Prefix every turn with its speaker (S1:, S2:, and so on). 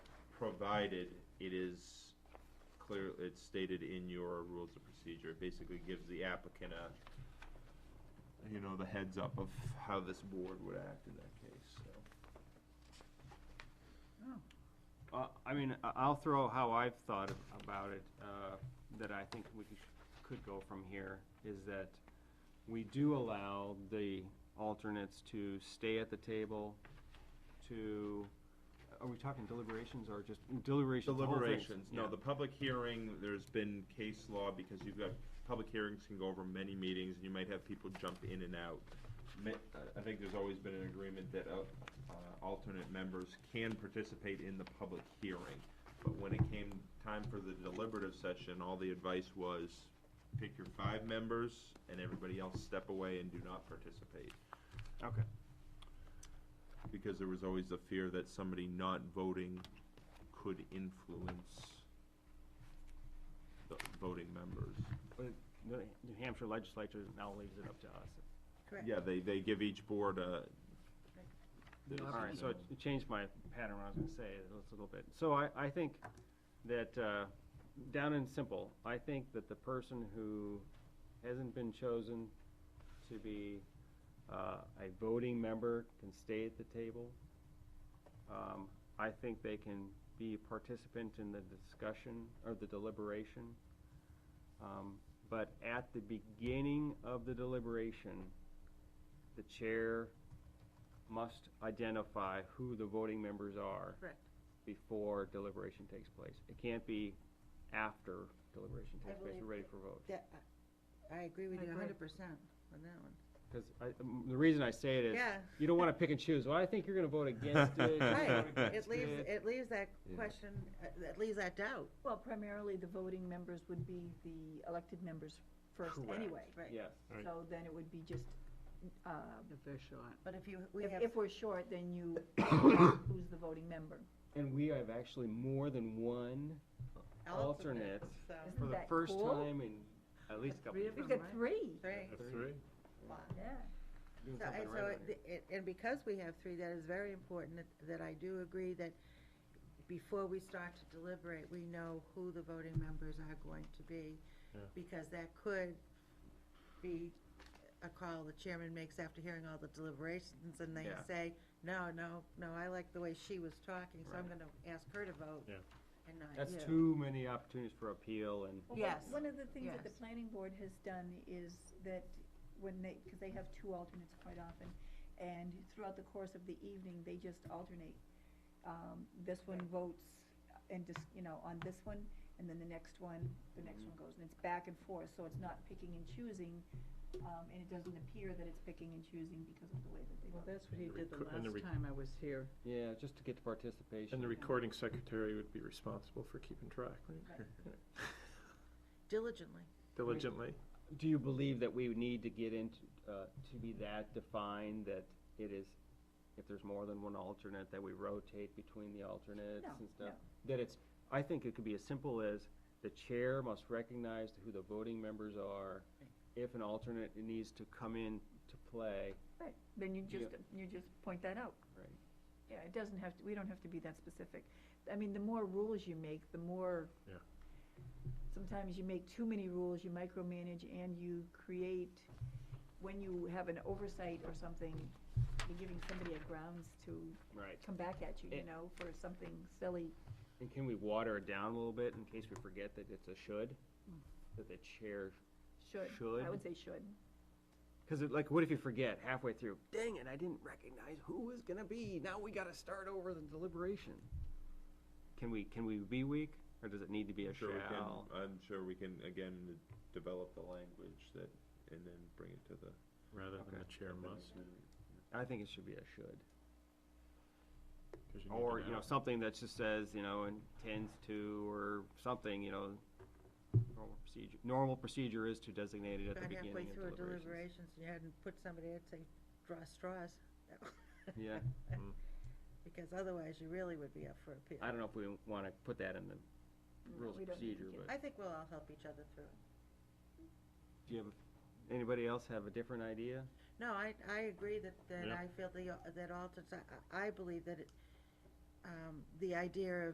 S1: provided, it is clear, it's stated in your rules of procedure. It Basically gives the applicant a, you know, the heads up of how this board would act in that case, so.
S2: Uh, I mean, I- I'll throw out how I've thought about it, uh, that I think we could- could go from here, is that we do allow the alternates to stay at the table, to, are we talking deliberations or just deliberations? the whole thing?
S1: Deliberations, no,
S2: Yeah.
S1: the public hearing, there's been case law, because you've got, public hearings can go over many meetings, and you might have people jump in and out. Ma- I- I think there's always been an agreement that uh, uh, alternate members can participate in the public hearing. But when it came time for the deliberative session, all the advice was, pick your five members, and everybody else step away and do not participate
S2: Okay,
S1: because there was always the fear that somebody not voting could influence the voting members.
S2: but the New Hampshire legislature now leaves it up to us.
S3: Correct.
S1: Yeah, they, they give each board a. the
S2: All right, so
S1: decision.
S2: it it changed my pattern, what I was gonna say, a little bit. So I, I think that, uh, down and simple, I think that the person who hasn't been chosen to be, uh, a voting member can stay at the table. Um, I think they can be a participant in the discussion or the deliberation. Um, but at the beginning of the deliberation, the chair must identify who the voting members are
S3: Correct.
S2: before deliberation takes place. It can't be after deliberation
S3: I
S2: takes place,
S3: believe
S2: we're ready for vote.
S3: That, I I agree with
S4: I
S3: you a
S4: agree.
S3: hundred percent on that one.
S2: Because I, um, the reason I say it is,
S3: Yeah,
S2: you don't want to pick and choose, well, I think you're going to vote against it. you're gonna vote
S3: right.
S2: against
S3: It leaves,
S2: it."
S3: it leaves that
S1: Yeah.
S3: question, uh, it leaves that doubt.
S4: Well, primarily, the voting members would be the elected members first
S2: Correct.
S4: anyway.
S3: Right.
S2: Yes,
S5: Right.
S4: So then it would be just, uh,
S6: If they're short.
S3: But if you, we
S4: if,
S3: have,
S4: if we're short, then you, who's the voting member?
S2: and we have actually more than one alternate
S3: alternates, so,
S2: for the
S4: that
S2: first
S4: cool?
S2: time in at least a couple
S6: Three
S2: of
S6: of
S2: years.
S4: We've
S6: them,
S4: got
S6: right?
S4: three.
S3: three.
S5: A
S2: Three.
S5: three?
S3: Wow.
S4: Yeah.
S2: Doing
S3: So,
S2: something
S3: and
S2: right
S3: so,
S2: around here.
S3: it- it- and because we have three, that is very important, that- that I do agree that before we start to deliberate, we know who the voting members are going to be,
S5: Yeah.
S3: because that could be a call the chairman makes after hearing all the deliberations, and they
S1: Yeah.
S3: say, no, no, no, I like the way she was talking, so I'm
S1: Right.
S3: gonna ask her to vote.
S5: Yeah.
S3: And not
S2: That's
S3: you.
S2: too many opportunities for appeal and,
S4: Well, one-
S3: Yes.
S4: One of the things that the
S3: Yes.
S4: planning board has done is that when they, because they have two alternates quite often, and throughout the course of the evening, they just alternate. Um, this one votes and just, you know, on this one, and then the next one, the next
S3: Mm-hmm.
S4: one goes, and it's back and forth, so it's not picking and choosing, um, and it doesn't appear that it's picking and choosing because of the way that they
S6: Well,
S4: vote.
S6: that's what he
S5: The
S6: did the
S5: recor- and the
S6: last
S5: rec-
S6: time I was here.
S2: yeah, just to get to participation.
S5: And the recording secretary would be responsible for keeping track, right?
S3: Diligently.
S5: Diligently.
S2: Do you believe that we would need to get into, uh, to be that defined, that it is, if there's more than one alternate, that we rotate between the alternates
S4: No,
S2: and stuff? That it's, I think it could be as simple as, the chair must recognize who the voting members are. If an alternate needs to come in to play,
S4: Right, then you
S2: Yeah.
S4: just, you just point that out.
S2: right?
S4: Yeah, it doesn't have to, we don't have to be that specific. I mean, the more rules you make, the more.
S5: Yeah.
S4: Sometimes you make too many rules, you micromanage and you create, when you have an oversight or something, you're giving somebody a grounds to
S2: Right.
S4: come back at you, you
S2: It-
S4: know, for something silly.
S2: And can we water it down a little bit in case we forget that it's a should?
S4: Mm.
S2: That the chair,
S4: Should.
S2: Should.
S4: I would say should.
S2: cause it, like, what if you forget halfway through? Dang it, I didn't recognize who was gonna be, now we gotta start over the deliberation. Can we, can we be weak, or does it need to be a
S1: I'm sure we can-
S2: shall?
S1: I'm sure we can, again, develop the language that, and then bring it to the.
S5: Rather
S2: Okay.
S5: than the chair must.
S2: I think it should be a should.
S5: 'cause need
S2: Or,
S5: to
S2: you know, something that just says, you know, intends to, or something, you know, normal procedure, normal procedure is to designate it at the
S3: Got halfway
S2: beginning
S3: through a
S2: of deliberations.
S3: deliberations, and you hadn't put somebody, I'd say, draw straws.
S2: Yeah,
S3: Because otherwise, you really would be up for appeal.
S2: I don't know if we wanna put that in the
S4: No,
S2: rules
S4: Mm, we
S2: of
S4: don't need to
S2: procedure,
S4: get
S2: but.
S3: I think we'll all help each other through. it.
S2: Do you have, anybody else have a different idea?
S3: No, I, I agree that, that
S5: Yeah.
S3: I feel the, that alternates, I, I believe that it, um, the idea of